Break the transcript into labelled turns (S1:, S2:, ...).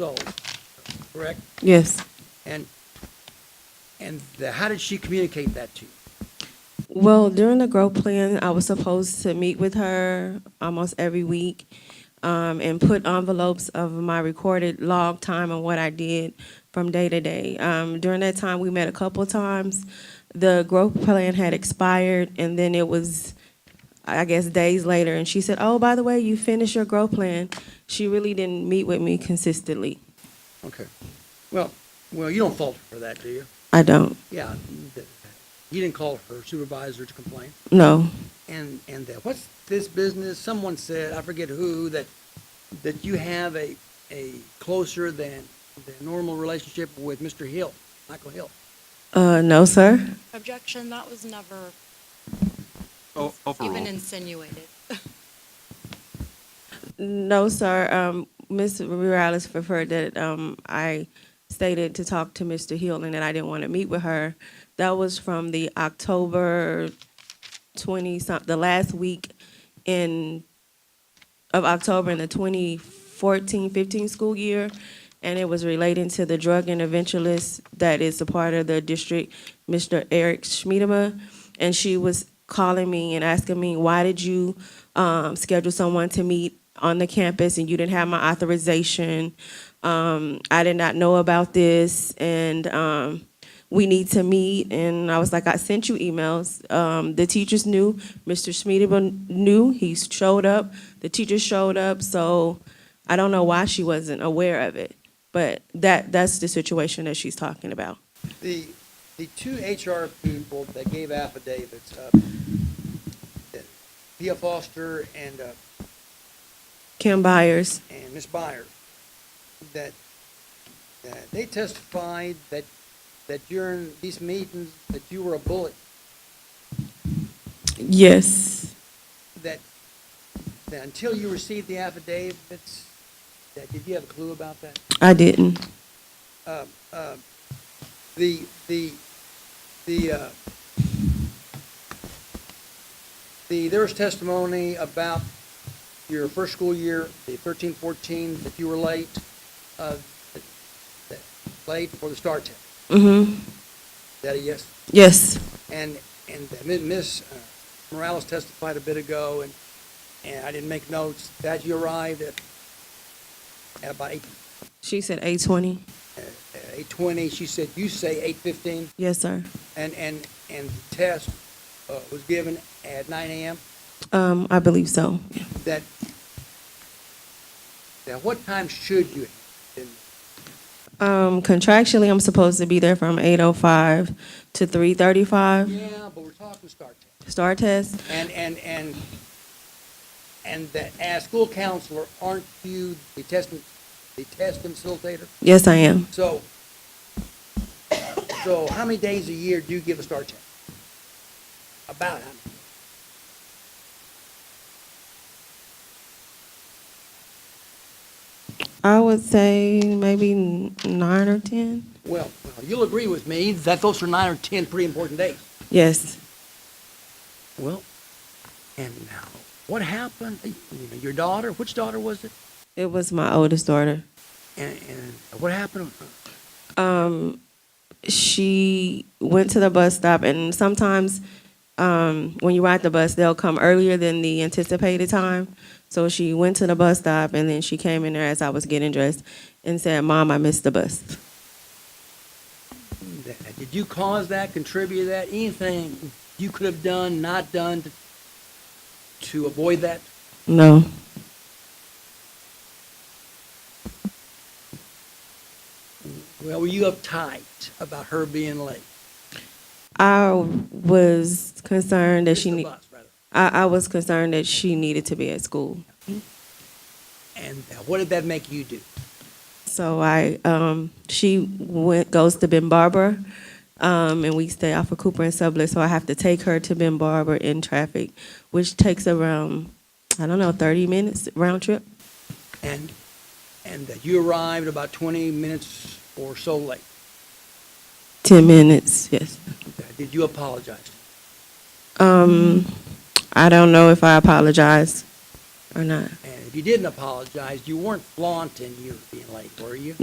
S1: sold, correct?
S2: Yes.
S1: And, and the, how did she communicate that to you?
S2: Well, during the growth plan, I was supposed to meet with her almost every week um, and put envelopes of my recorded log time and what I did from day to day. Um, during that time, we met a couple of times. The growth plan had expired, and then it was, I guess, days later. And she said, "Oh, by the way, you finished your growth plan." She really didn't meet with me consistently.
S1: Okay. Well, well, you don't fault her for that, do you?
S2: I don't.
S1: Yeah, th- you didn't call her supervisor to complain.
S2: No.
S1: And, and that, what's this business? Someone said, I forget who, that, that you have a, a closer than, than normal relationship with Mr. Hill, Michael Hill.
S2: Uh, no, sir.
S3: Objection, that was never
S4: O-
S3: even
S4: Overruled.
S3: insinuated.
S2: No, sir. Um, Ms. Morales preferred that, um, I stated to talk to Mr. Hill and that I didn't want to meet with her. That was from the October twenty some, the last week in, of October in the 2014-15 school year. And it was relating to the drug interventionist that is a part of the district, Mr. Eric Schmiedema. And she was calling me and asking me, why did you, um, schedule someone to meet on the campus and you didn't have my authorization? Um, I did not know about this and, um, we need to meet. And I was like, I sent you emails. Um, the teachers knew, Mr. Schmiedema knew, he showed up, the teachers showed up. So I don't know why she wasn't aware of it. But that, that's the situation that she's talking about.
S1: The, the two HR people that gave affidavits, uh, Pia Foster and, uh,
S2: Kim Byers,
S1: and Ms. Byers, that, that they testified that, that during these meetings, that you were a bullet,
S2: yes,
S1: that, that until you received the affidavits, that, did you have a clue about that?
S2: I didn't.
S1: Uh, uh, The, the, the, uh, the, there was testimony about your first school year, the thirteen, fourteen, that you were late, uh, that- that- late for the start test.
S2: Mm-hmm,
S1: Is that a yes?
S2: yes,
S1: And, and Ms. uh, Morales testified a bit ago, and, and I didn't make notes, that you arrived at, at about eight, uh,
S2: she said eight twenty.
S1: eight twenty, she said, you say eight fifteen,
S2: Yes, sir.
S1: and, and, and the test, uh, was given at nine AM,
S2: Um, I believe so.
S1: that, that what time should you have been?
S2: Um, contractually, I'm supposed to be there from eight oh five to three thirty-five.
S1: Yeah, but we're talking start time.
S2: Star test,
S1: And, and, and, and that as school counselor, aren't you the test, the test facilitator?
S2: yes, I am.
S1: So, so how many days a year do you give a star test? About how many?
S2: I would say maybe n- nine or ten.
S1: Well, well, you'll agree with me that those are nine or 10 pretty important days.
S2: Yes.
S1: Well, and now, what happened? You know, Your daughter, which daughter was it?
S2: It was my oldest daughter.
S1: And, and what happened?
S2: Um, she went to the bus stop, and sometimes um, when you ride the bus, they'll come earlier than the anticipated time. So she went to the bus stop, and then she came in there as I was getting dressed and said, "Mom, I missed the bus."
S1: That- Did you cause that, contribute to that, anything you could have done, not done to, to avoid that?
S2: No.
S1: Well, were you uptight about her being late?
S2: I was concerned that she
S1: Missed the
S2: need,
S1: bus, rather.
S2: I, I was concerned that she needed to be at school.
S1: And uh, what did that make you do?
S2: So I um, she went goes to Ben Barber, um, and we stay off of Cooper and Sublet. So I have to take her to Ben Barber in traffic, which takes around I don't know thirty minutes round trip.
S1: And, and that you arrived about 20 minutes or so late.
S2: Ten minutes, yes.
S1: Uh, Did you apologize?
S2: Um, I don't know if I apologize. or not?
S1: And if you didn't apologize, you weren't flaunting you were being late, were you?